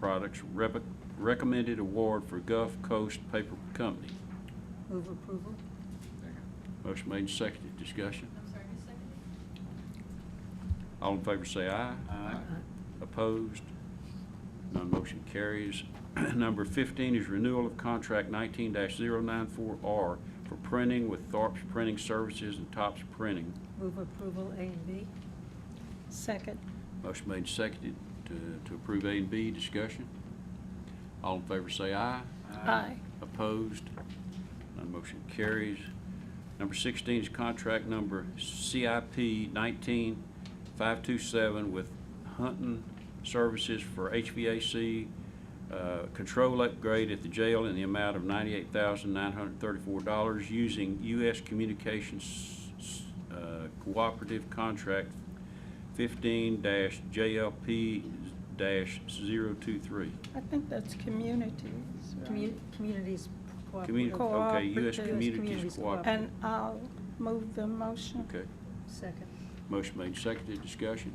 Products Rebe- Recommended Award for Gulf Coast Paper Company. Move approval? Motion made, and seconded. Discussion. I'm sorry, who seconded? All in favor say aye. Aye. Uh-huh. Opposed? None motion carries. Number 15 is renewal of contract 19-094R for printing with Thorpe's Printing Services and Tops Printing. Move approval A and B? Second. Motion made, and seconded to to approve A and B. Discussion. All in favor say aye. Aye. Opposed? None motion carries. Number 16 is contract number CIP 19527 with Hunting Services for HVAC uh, control upgrade at the jail in the amount of $98,934 using U.S. Communications uh, Cooperative Contract 15-JLP-023. I think that's communities. right? Commu- Communities Communi- cooperative. okay, U.S. Cooperative. Communities Cooperative. And I'll move the motion. Okay. Second. Motion made, seconded, discussion.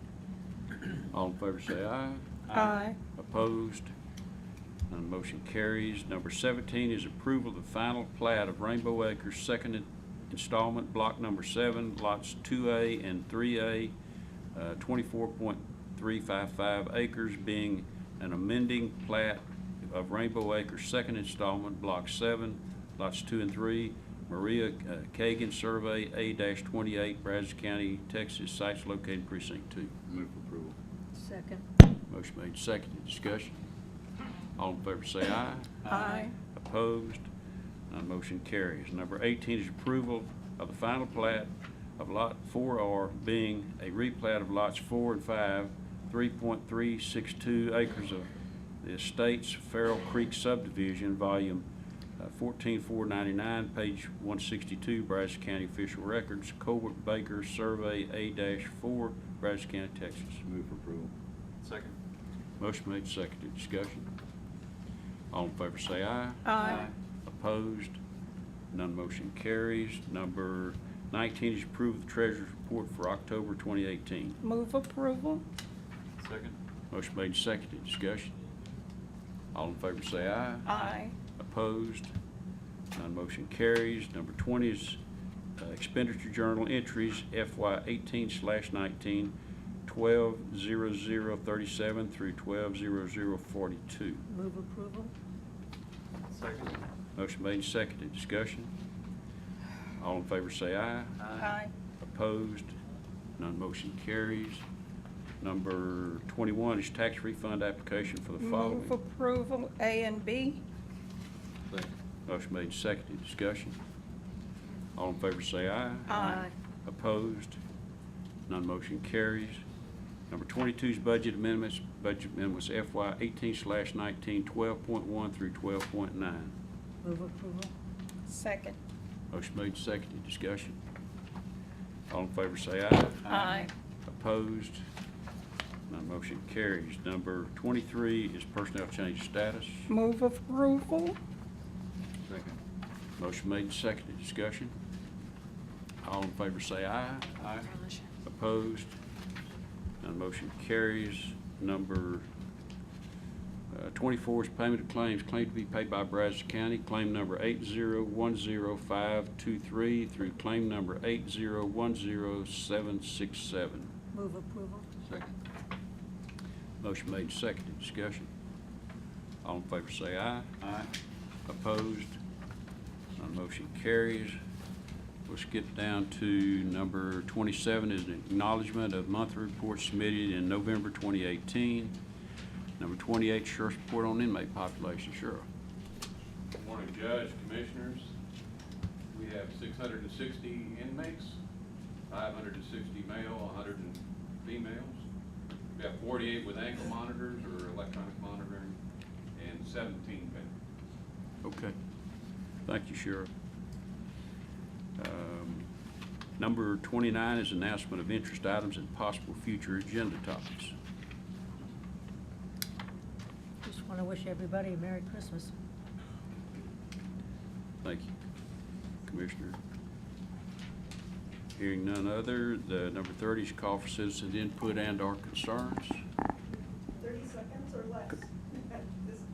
All in favor say aye. Aye. Opposed? None motion carries. Number 17 is approval of the final plat of Rainbow Acres Second in- Installment, Block Number 7, Lots 2A and 3A, uh, 24.355 acres, being an amending plat of Rainbow Acres Second Installment, Block 7, Lots 2 and 3, Maria uh, Kagan Survey A-28, Brazos County, Texas, sites located precinct 2. Move for approval. Second. Motion made, seconded, discussion. All in favor say aye. Aye. Opposed? None motion carries. Number 18 is approval of the final plat of Lot 4R being a replat of lots 4 and 5, 3.362 acres of the estate's Farrell Creek subdivision, volume uh, 14499, page 162, Brazos County Official Records, Colbert Baker Survey A-4, Brazos County, Texas. Move for approval. Second. Motion made, seconded, discussion. All in favor say aye. Aye. Opposed? None motion carries. Number 19 is approve the treasurer's report for October 2018. Move approval. Second. Motion made, seconded, discussion. All in favor say aye. Aye. Opposed? None motion carries. Number 20 is uh, expenditure journal entries FY 18 slash 19, 120037 through 120042. Move approval? Second. Motion made, seconded, discussion. All in favor say aye. Aye. Opposed? None motion carries. Number 21 is tax refund application for Mm-hmm. the following. Move approval A and B. Second. Motion made, seconded, discussion. All in favor say aye. Aye. Opposed? None motion carries. Number 22 is budget amendments, budget amendments FY 18 slash 19, 12.1 through 12.9. Move approval? Second. Motion made, seconded, discussion. All in favor say aye. Aye. Opposed? None motion carries. Number 23 is personnel change status. Move approval. Second. Motion made, seconded, discussion. All in favor say aye. Aye. Opposed? None motion carries. Number uh, 24 is payment of claims, claim to be paid by Brazos County, claim number 8010523 through claim number 8010767. Move approval? Second. Motion made, seconded, discussion. All in favor say aye. Aye. Opposed? None motion carries. We'll skip down to number 27 is an acknowledgment of monthly reports submitted in November 2018. Number 28, Sheriff's Report on Inmate Population. Sheriff. Good morning, Judge, Commissioners. We have six hundred and sixty inmates, five hundred and sixty male, hundred and females. We have forty-eight with ankle monitors or electronic monitoring, and seventeen veterans. Okay. Thank you, Sheriff. Um, Number 29 is announcement of interest items and possible future agenda topics. Just want to wish everybody a Merry Christmas. Thank you, Commissioner. Hearing none other, the number thirty is call for citizen input and our concerns.